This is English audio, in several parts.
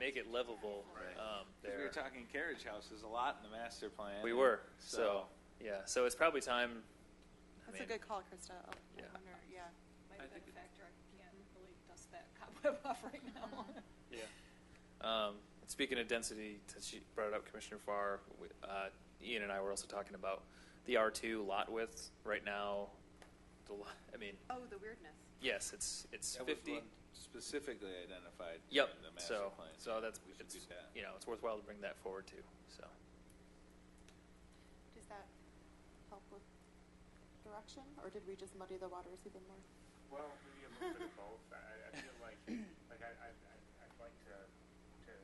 make it livable Right. 'Cause um, there. We were talking carriage houses a lot in the master plan. We and were, so, yeah, so it's probably time. I That's a mean, good call, Krista. Oh, I Yeah. wonder, yeah. My I bed think it- factor, I can't really dust that cobweb off right now. Yeah. Um, and speaking of density, since you brought it up, Commissioner Farr, we- uh, Ian and I were also talking about the R2 lot width. Right now, the, lo- I mean, Oh, the weirdness. yes, it's, it's That was 50. one Specifically identified. Yep, in the master so, plan. so that's, We should do it's, that. you know, it's worthwhile to bring that forward too, so. Does that help with direction, or did we just muddy the waters even more? Well, maybe a little bit of both. I, I feel like, like I, I, I- I'd like to, to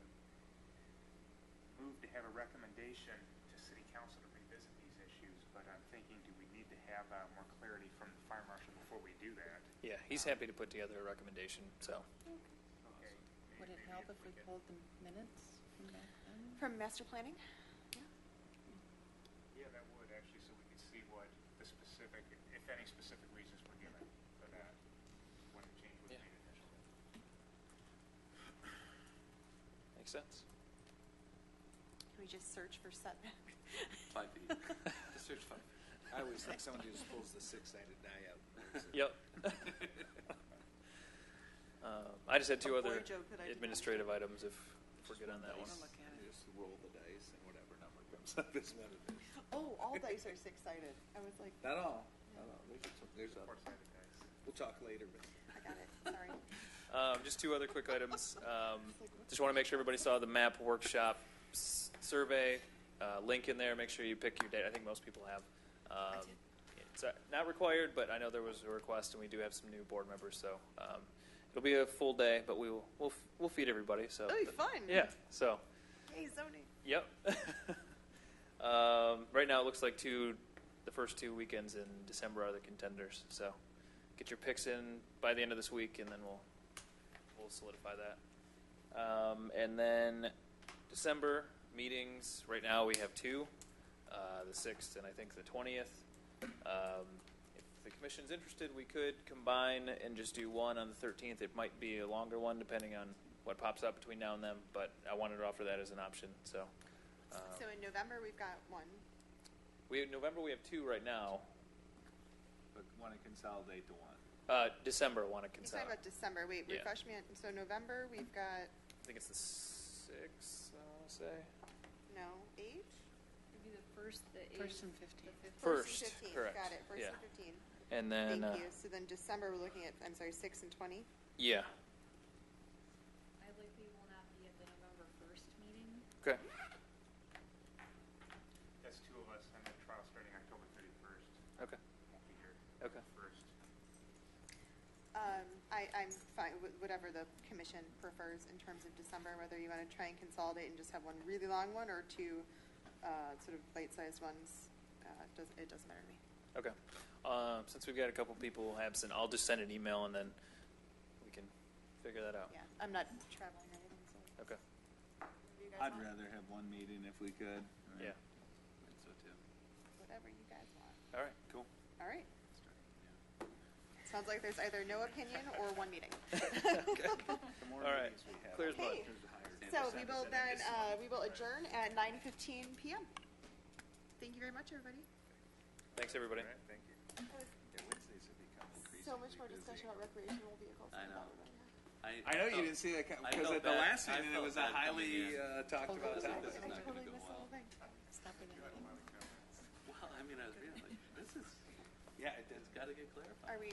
move to have a recommendation to city council to revisit these issues, but I'm thinking, do we need to have, uh, more clarity from the fire marshal before we do that? Yeah, he's Um, happy to put together a recommendation, so. Okay. may- Would it maybe help if if we could- pulled the minutes from back then? From master planning? Yeah. Yeah, that would actually, so we could see what the specific, if any specific reasons were given for that, when the change was Yeah. made initially. Makes sense? Can we just search for setback? Five feet. Just search five. feet. I always think somebody just pulls the six-sided die out. and moves it. Yep. Um, I just had Oh, two boy, other Joe, could I do that? administrative items if if we're good on that I one. wanna look at it. Just roll the dice and whatever number comes up is what it is. Oh, all dice are six-sided. I was like, Not all, not all. There's, a- there's a, Four-sided dice. we'll talk later, but. I got it, sorry. Um, just two other quick items. Um, just want to make sure everybody saw the map workshop s- survey uh, link in there. Make sure you pick your date. I think most people have. Um, it's uh, not required, but I know there was a request, and we do have some new board members, so um, it'll be a full day. But we will we'll, f- we'll feed everybody. So That'll be fun. Yeah. So Yay, zoning. Yep. um, right now, it looks like two, the first two weekends in December are the contenders. So, get your picks in by the end of this week, and then we'll we'll solidify that. Um, and then December meetings. Right now, we have two, uh, the sixth and I think the twentieth. Um, if the commission's interested, we could combine and just do one on the thirteenth. It might be a longer one, depending on what pops up between now and then. But I wanted to offer that as an option. So. Um, So in November, we've got one. we in November we have two right now. But want to consolidate to one. Uh, December want to You're consider. talking about December, wait, Yeah. refresh me, on- so November, we've got, I think it's the sixth. I want to say no, eight? Maybe the first, the eighth. First and fifteenth. the fifth. first. and 15th, correct. Got it, first yeah. and fifteen. And then Thank uh, you. So then December, we're looking at, I'm sorry, six and twenty? yeah. I likely will not be at the November first meeting. Okay. That's two of us, I'm at trial starting October thirty-first, Okay. won't be here. Okay. First. Um, I, I'm fine with whatever the commission prefers in terms of December, whether you want to try and consolidate and just have one really long one or two, uh, sort of bite-sized ones. Uh, it doesn't, it doesn't matter to me. Okay. Um, since we've got a couple people absent, I'll just send an email and then we can figure that out. Yeah, I'm not traveling or anything, so. Okay. whatever you guys I'd want. rather have one meeting if we could. right? Yeah. I think So too. Whatever you guys want. All right. Cool. All right. Starting, yeah. Sounds like there's either no opinion or one meeting. The more All right. meetings we have, Clear as mud. Okay. the higher the So we percentage will that I then, just- uh, we will adjourn at nine fifteen PM. Thank you very much, everybody. Thanks everybody. All right, thank you. Yeah, Wednesdays have become increasingly So much more discussion about recreational vehicles. I than know. that we're doing. I know you didn't see that I because felt at the bad- last I meeting it felt was a bad coming highly in. uh, talked Oh, about this is topic. this is I not gonna totally go missed the well. whole thing. Stop it. Well, I mean, I was being like, this is, Yeah, it does. it's got to get clarified. Are we,